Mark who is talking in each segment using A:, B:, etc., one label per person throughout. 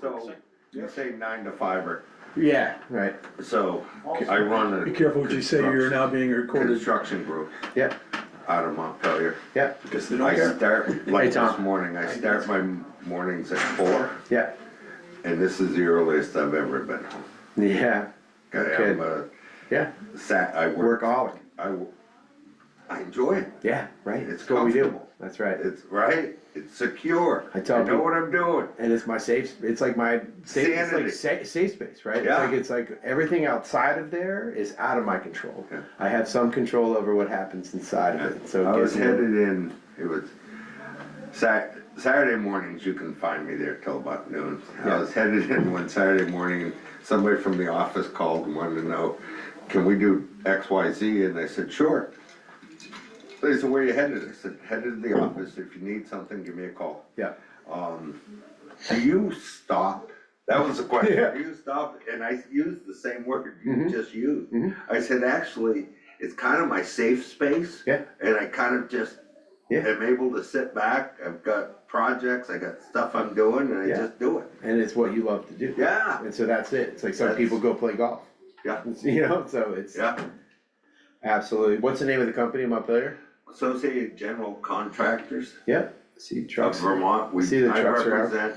A: So, you say nine to five or,
B: Yeah, right,
A: so I run a.
C: Be careful what you say, you're now being recorded,
A: Construction group
B: yeah,
A: out of Montpelier.
B: yeah,
C: because they don't
A: I
C: care.
A: start, like
B: Hey, Tom.
A: this morning, I start my mornings at four,
B: yeah,
A: and this is the earliest I've ever been home.
B: yeah,
A: Okay, I'm a
B: yeah,
A: sat, I work,
B: workaholic,
A: I, w- I enjoy it.
B: yeah, right,
A: It's
B: it's what we do,
A: comfortable.
B: that's right.
A: It's, right? It's secure.
B: I tell
A: I know
B: people-
A: what I'm doing.
B: And it's my safe, sp- it's like my, safe- it's like
A: Sanity.
B: sa- safe space, right? It's
A: Yeah.
B: like, it's like everything outside of there is out of my control.
A: Yeah.
B: I have some control over what happens inside of it, so
A: I
B: it
A: was
B: gives me.
A: headed in, it was Sat, Saturday mornings, you can find me there till about noon. I
B: Yeah.
A: was headed in one Saturday morning, and somebody from the office called and wanted to know, can we do X, Y, Z? And I said, sure. They said, where you headed? I said, headed
B: Hmm.
A: to the office, if you need something, give me a call.
B: Yeah,
A: Do you stop? That was the
B: Yeah. Mm-hmm.
A: question. Do you stop? And I used the same word you just used. I said, actually, it's kind of my safe space.
B: Yeah.
A: And I kind of just
B: Yeah.
A: am able to sit back. I've got projects, I got stuff I'm doing and I
B: Yeah.
A: just do it.
B: and it's what you love to do.
A: Yeah,
B: And so that's it, it's like some
A: That's-
B: people go play golf,
A: yeah,
B: you know, so it's
A: yeah.
B: absolutely, what's the name of the company in Montpelier?
A: Associated General Contractors
B: Yeah, see
A: of
B: trucks,
A: Vermont, we,
B: See the
A: I
B: trucks are out.
A: represent,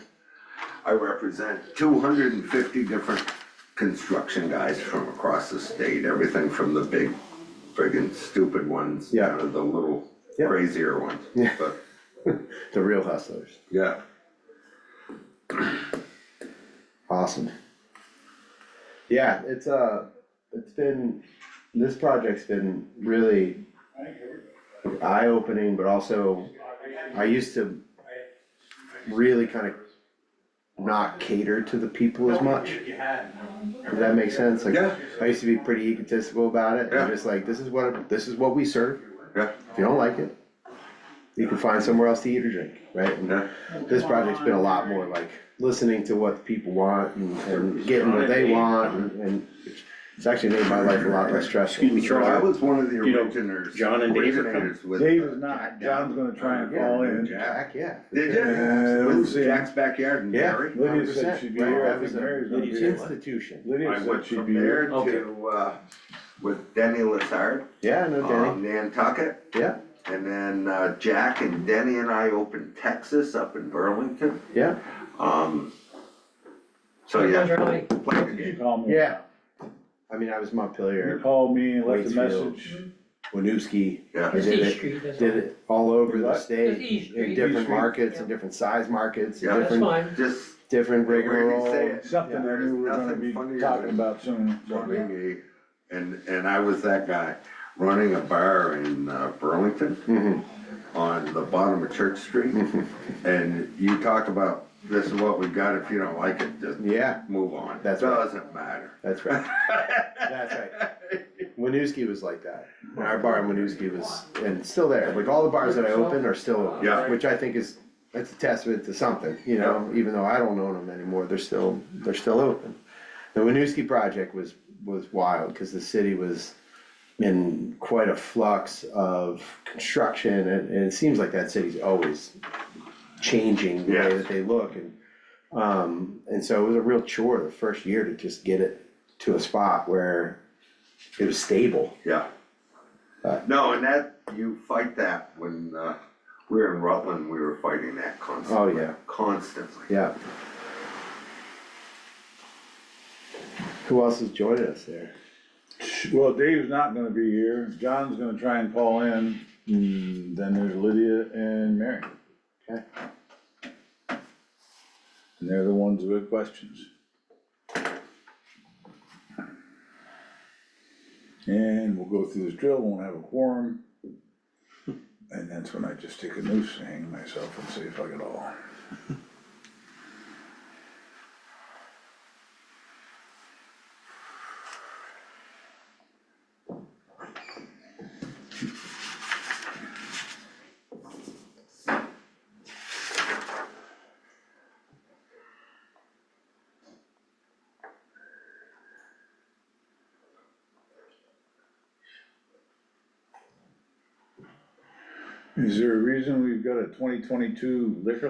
A: I represent two hundred and fifty different construction guys from across the state, everything from the big friggin' stupid ones
B: Yeah.
A: down to the little
B: Yeah.
A: crazier ones,
B: Yeah.
A: but,
B: the real hustlers,
A: yeah.
B: awesome. Yeah, it's, uh, it's been, this project's been really eye-opening, but also, I used to really kind of not cater to the people as much. Does that make sense? Like,
A: Yeah.
B: I used to be pretty egotistical about it,
A: Yeah.
B: and just like, this is what, this is what we serve,
A: Yeah,
B: if you don't like it, you can find somewhere else to eat or drink, right? And
A: yeah,
B: this project's been a lot more like listening to what the people want and, and getting what they want and, and it's actually made my life a lot less stressful.
D: Excuse me,
A: so I
D: Charlie.
A: was one of the
D: You know,
A: originators.
D: John and Dave are coming.
A: originators with, uh,
C: Dave is not,
A: Jack
C: John's
A: Down.
C: gonna try and
B: Yeah.
C: call in.
A: Jack.
B: Heck, yeah.
A: Did
C: Uh,
A: you?
C: we'll
A: With
C: see.
A: Jack's backyard and
B: Yeah.
A: Barry?
C: Lydia said she'd be here, I think Mary's gonna be
B: It's
D: Lydia's
B: an
C: here.
B: institution.
A: I
C: Lydia
A: went
C: said she'd
A: from
C: be
A: there
C: here.
D: Okay.
A: to, uh, with Denny Lazard,
B: Yeah, no,
A: um,
B: Danny,
A: Nantucket.
B: yeah,
A: And then uh, Jack and Denny and I opened Texas up in Burlington.
B: yeah,
A: Um, so yeah,
E: Really?
A: played the
C: You
A: game.
C: call me.
B: yeah. I mean, I was
C: You
B: Montpelier,
C: call me and left a
B: Waitsfield.
C: message.
B: Winooski, I
A: Yeah,
E: It's
B: did
E: E
B: it,
E: Street, that's all.
B: did it all over the
C: What?
E: It's E
B: state,
E: Street.
B: in
C: E
B: different
C: Street.
B: markets, and different size markets,
A: Yeah.
B: and
E: That's
B: different,
E: fine.
A: just
B: different
A: the way
B: rigmarole.
A: you say it.
C: Something I
A: There's
C: knew we were gonna
A: nothing
C: be
A: funnier
C: talking
A: than
C: about soon. so.
A: running a- And, and I was that guy running a bar in uh, Burlington
B: Mm-hmm.
A: on the bottom of Church Street. And you talk about this is what we got, if you don't like it, just
B: Yeah,
A: move on.
B: That's right.
A: Doesn't matter.
B: that's right. That's right. Winooski was like that. And Our bar in Winooski was, and it's still there. Like all the bars that I open are still,
A: Yeah.
B: which I think is, that's a testament to something, you know, even though I don't own them anymore, they're still, they're still open. The Winooski project was, was wild because the city was in quite a flux of construction and, and it seems like that city's always changing the way
A: Yes.
B: that they look and, um, and so it was a real chore the first year to just get it to a spot where it was stable.
A: Yeah. No, and that, you fight that when, uh, we were in Rutland, we were fighting that constantly.
B: yeah.
A: Constantly.
B: Yeah. Who else has joined us there?
C: Well, Dave's not gonna be here, John's gonna try and call in, and then there's Lydia and Mary.
B: Okay.
C: And they're the ones with questions. And we'll go through this drill, won't have a quorum. And that's when I just take a noose and hang myself and say, fuck it all. Is there a reason we've got a twenty twenty-two liquor